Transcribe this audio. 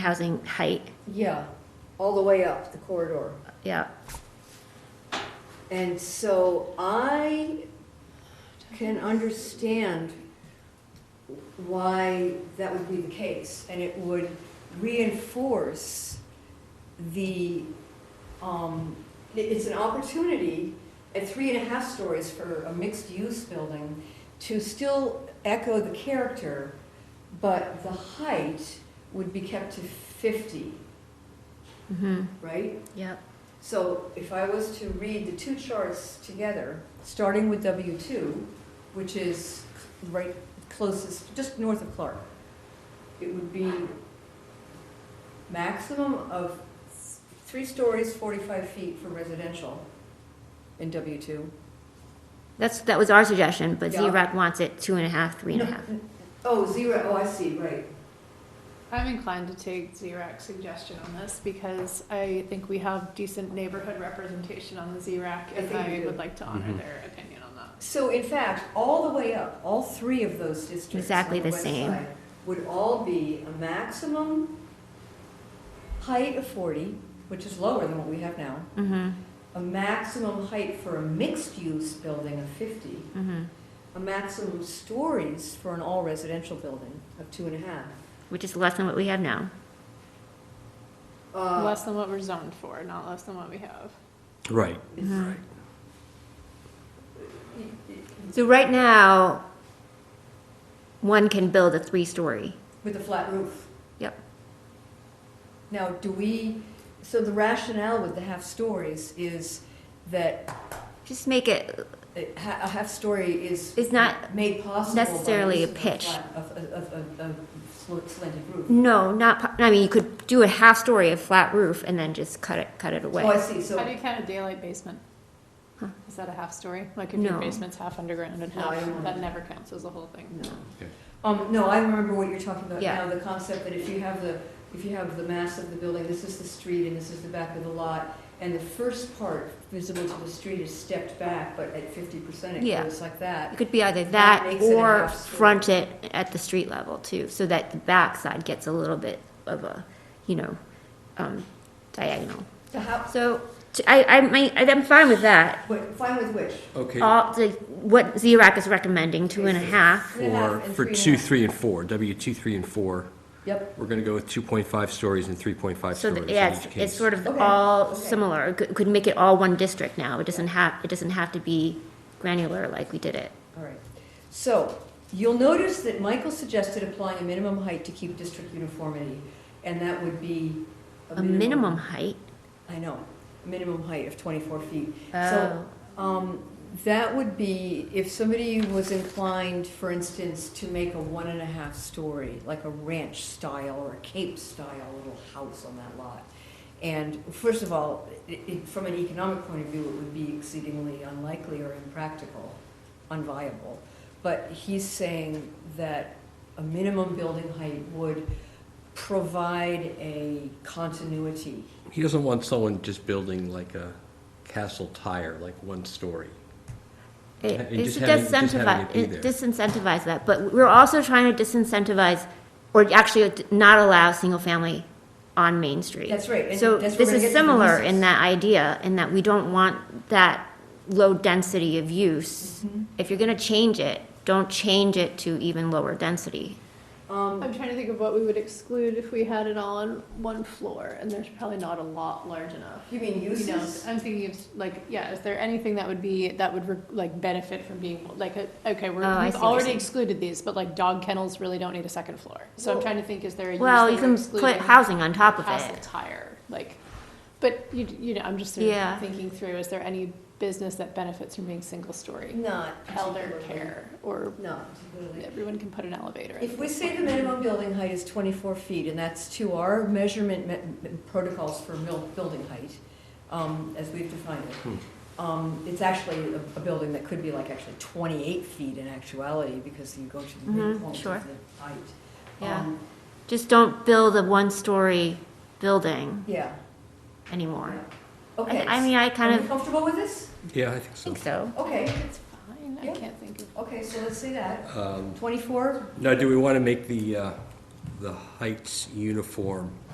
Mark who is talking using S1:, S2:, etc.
S1: housing height,
S2: Yeah, all the way up the corridor.
S1: yeah.
S2: And so I can understand why that would be the case. And it would reinforce the, um, it- it's an opportunity at three and a half stories for a mixed-use building to still echo the character, but the height would be kept to 50,
S1: Mm-hmm,
S2: right?
S1: yep.
S2: So if I was to read the two charts together, starting with W2, which is right closest, just north of Clark, it would be maximum of three stories, 45 feet for residential in W2.
S1: That's, that was our suggestion, but
S2: Yeah.
S1: Z-Rock wants it two and a half, three and a half.
S2: Oh, zero, oh, I see, right.
S3: I'm inclined to take ZRAC's suggestion on this because I think we have decent neighborhood representation on the ZRAC
S2: I
S3: and
S2: think we
S3: I
S2: do.
S3: would like to honor
S4: Mhm.
S3: their opinion on that.
S2: So in fact, all the way up, all three of those districts. on
S1: Exactly the
S2: west
S1: same.
S2: side Would all be a maximum height of 40, which is lower than what we have now.
S1: Mm-hmm,
S2: a maximum height for a mixed-use building of 50,
S1: mm-hmm,
S2: a maximum stories for an all-residential building of two and a half.
S1: which is less than what we have now.
S2: Uh,
S3: Less than what we're zoned for, not less than what we have.
S4: Right.
S2: it's-
S1: Mm-hmm. So right now, one can build a three-story.
S2: With a flat roof.
S1: Yep.
S2: Now, do we, so the rationale with the half-stories is that
S1: Just make it,
S2: a ha- a half-story is.
S1: It's not
S2: Made possible. by
S1: necessarily
S2: use
S1: a
S2: of
S1: pitch.
S2: flat- Of, of, of- of sl- slanted roof.
S1: no, not, po- I mean, you could do a half-story of flat roof and then just cut it, cut it
S2: Oh, I
S1: away.
S2: see, so.
S3: How do you count a daylight basement?
S1: Huh.
S3: Is that a half story? Like if
S1: No.
S3: your basement's half underground and
S2: No,
S3: half,
S2: I don't
S3: that
S2: know.
S3: never counts as a whole thing.
S2: No.
S4: Okay.
S2: Um, no, I remember what you're talking about
S1: Yeah.
S2: now, the concept that if you have the, if you have the mass of the building, this is the street and this is the back of the lot, and the first part visible to the street is stepped back, but at fifty percent it
S1: Yeah.
S2: goes like
S1: It
S2: that.
S1: could be either
S2: That
S1: that
S2: makes it a
S1: or
S2: half-story.
S1: front it at the street level too, so that the backside gets a little bit of a, you know, um, diagonal.
S2: The house,
S1: So, t- I, I mean, I'm fine with that.
S2: wait, fine with which?
S4: Okay,
S2: Uh,
S1: All, the, what Z-RAC is recommending, two and a half.
S2: Three and a half
S4: for,
S2: and
S4: for
S2: three and a
S4: two,
S2: half.
S4: three, and four, W two, three, and four,
S2: Yep,
S4: we're gonna go with two point five stories and three point five
S1: So,
S4: stories
S1: that-
S4: in
S1: yeah, it's,
S4: each
S1: it's
S4: case.
S1: sort of
S2: Okay,
S1: all
S2: okay.
S1: similar. It Could, could make it all one district now. It doesn't have, it doesn't have to be granular like we did it.
S2: all right. So, you'll notice that Michael suggested applying a minimum height to keep district uniformity, and that would be
S1: A minimum height.
S2: I know, minimum height of twenty-four feet.
S1: oh.
S2: So, Um, that would be, if somebody was inclined, for instance, to make a one and a half story, like a ranch style or a cape style little house on that lot. And first of all, it, it, from an economic point of view, it would be exceedingly unlikely or impractical, unviable. But he's saying that a minimum building height would provide a continuity.
S4: He doesn't want someone just building like a castle tire, like one story.
S1: It
S4: And
S1: it
S4: just
S1: should
S4: having- just having
S1: disincentivize,
S4: it be
S1: it
S4: there.
S1: disincentivize that, but we're also trying to disincentivize, or actually not allow single-family on Main Street.
S2: That's right, and
S1: So
S2: that's where
S1: this
S2: we're gonna get
S1: is
S2: to the
S1: similar
S2: nuisance.
S1: in that idea, in that we don't want that low density of use.
S2: Mm-hmm.
S1: If you're gonna change it, don't change it to even lower density.
S2: Um,
S3: I'm trying to think of what we would exclude if we had it all on one floor and there's probably not a lot large enough.
S2: you mean
S3: You know,
S2: uses?
S3: I'm thinking of, like, yeah, is there anything that would be, that would, re- like, benefit from being, like, a- okay, we're,
S1: Oh, I
S3: we've
S1: see what you're
S3: already
S1: saying.
S3: excluded these, but like, dog kennels really don't need a second floor. So I'm
S2: Well-
S3: trying to think, is there a use
S1: Well,
S3: that
S1: you
S3: we're
S1: can put
S3: excluding?
S1: housing on top of
S3: Castle
S1: it.
S3: tire, like, but you, you know, I'm just sort
S1: Yeah.
S3: of thinking through, is there any business that benefits from being single story?
S2: Not
S3: Elder
S2: particularly.
S3: care, or
S2: Not particularly.
S3: everyone can put an elevator in.
S2: If we say the minimum building height is 24 feet, and that's to our measurement me- protocols for mil- building height, um, as we've defined it, um, it's actually a a building that could be like actually 28 feet in actuality, because you go to the
S1: Mhm,
S2: midpoint
S1: sure.
S2: of the height.
S1: Yeah.
S2: Um,
S1: Just don't build a one-story building
S2: Yeah.
S1: anymore.
S2: Okay.
S1: I mean, I kind
S2: Are
S1: of
S2: we comfortable with this?
S4: Yeah, I think so.
S1: think so.
S2: Okay,
S3: It's fine, I
S2: Yeah.
S3: can't think of.
S2: okay, so let's say that.
S4: Um,
S2: 24
S4: Now, do we wanna make the, uh, the heights uniform